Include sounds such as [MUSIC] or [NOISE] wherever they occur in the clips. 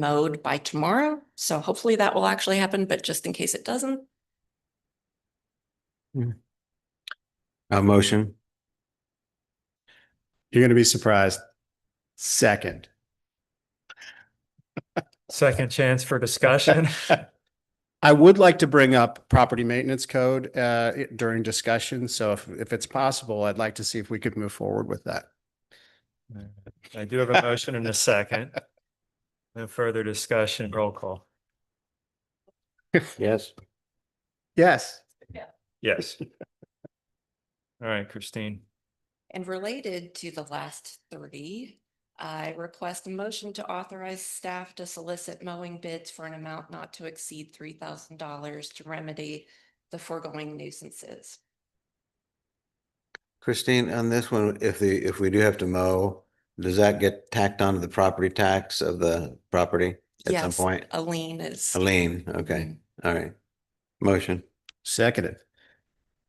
mode by tomorrow. So hopefully that will actually happen, but just in case it doesn't, Uh, A motion. You're gonna be surprised. Second. Second chance for discussion. [LAUGHS] I would like to bring up property maintenance code uh, it- during discussion. So if, if it's possible, I'd like to see if we could move forward with [LAUGHS] that. I do have a motion and a second. No further discussion, roll call. Yes. Yes. Yes. All right, Christine. And related to the last thirty, I request a motion to authorize staff to solicit mowing bids for an amount not to exceed three thousand dollars to remedy the foregoing nuisances. Christine, on this one, if the, if we do have to mow, does that get tacked onto the property tax of the property at some Yes, point? A lien is. A lien, okay, all right. Motion, Seconded.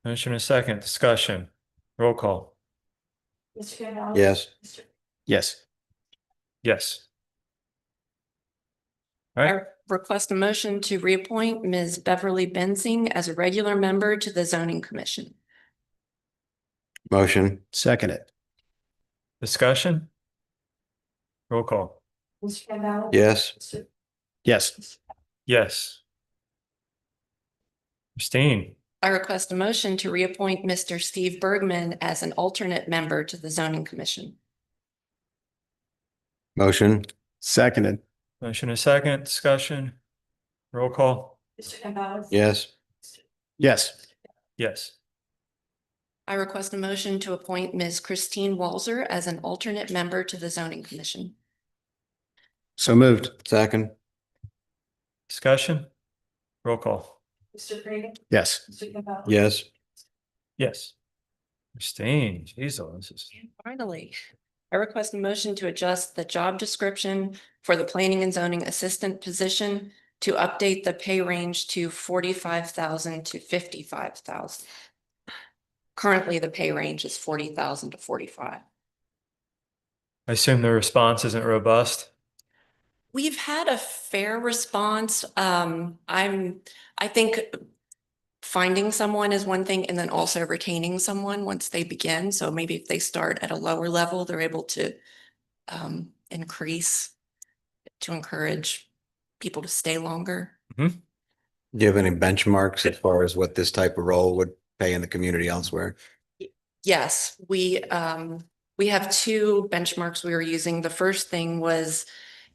Motion and a second, discussion, roll call. Mr. Campbell. yes. Yes. Yes. All right, Request a motion to reappoint Ms. Beverly Bensing as a regular member to the zoning commission. Motion, Seconded. discussion. Roll call. Mr. Campbell. yes. Yes. Yes. Christine, I request a motion to reappoint Mr. Steve Bergman as an alternate member to the zoning commission. Motion, Seconded. motion and a second, discussion, roll call. Mr. Campbell. yes. Yes. Yes. I request a motion to appoint Ms. Christine Walzer as an alternate member to the zoning commission. So moved. Second, Discussion? Roll call. Mr. Green. Yes. Mr. Campbell. yes. Yes. Christine, geez, oh, this is, And Finally, I request a motion to adjust the job description for the planning and zoning assistant position to update the pay range to forty-five thousand to fifty-five thousand. Currently, the pay range is forty thousand to forty-five. I assume the response isn't robust. We've had a fair response. Um, I'm, I think finding someone is one thing and then also retaining someone once they begin. So maybe if they start at a lower level, they're able to um, increase to encourage people to stay longer. Do you have any benchmarks as far as what this type of role would pay in the community elsewhere? Yes, we, um, we have two benchmarks we were using. The first thing was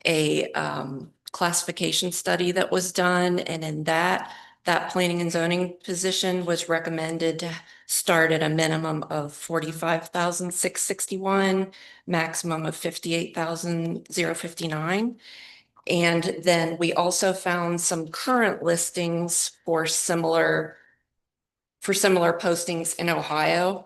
a, um, classification study that was done. And in that, that planning and zoning position was recommended to start at a minimum of forty-five thousand, six sixty-one, maximum of fifty-eight thousand, zero fifty-nine. And then we also found some current listings for similar, for similar postings in Ohio.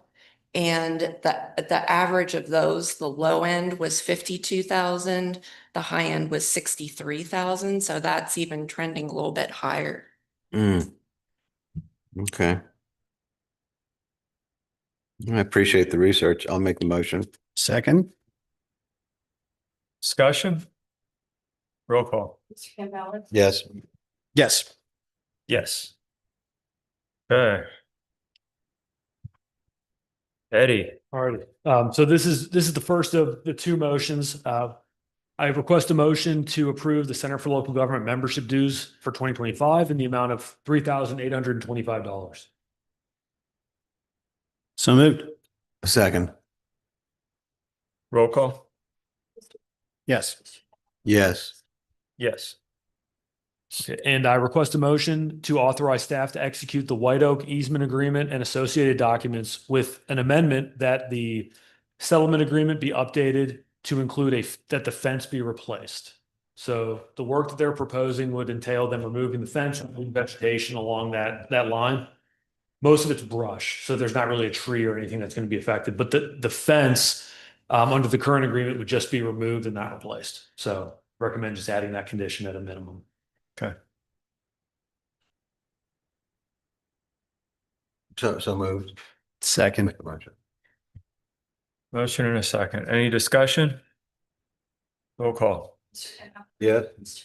And the, the average of those, the low end was fifty-two thousand, the high end was sixty-three thousand, so that's even trending a little bit higher. Hmm. Okay. I appreciate the research. I'll make the motion. Second. Discussion? Roll call. Yes. Yes. Yes. Okay. Eddie, All right, um, so this is, this is the first of the two motions. Uh, I request a motion to approve the Center for Local Government membership dues for twenty twenty-five in the amount of three thousand eight hundred and twenty-five dollars. So moved. Second, roll call. Yes. yes. Yes. And I request a motion to authorize staff to execute the White Oak easement agreement and associated documents with an amendment that the settlement agreement be updated to include a, that the fence be replaced. So the work that they're proposing would entail them removing the fence and putting vegetation along that, that line. Most of it's brush, so there's not really a tree or anything that's going to be affected, but the, the fence um, under the current agreement would just be removed and not replaced. So recommend just adding that condition at a minimum. So, so moved. Second. Make the motion. Motion and a second. Any discussion? Roll call. Yes.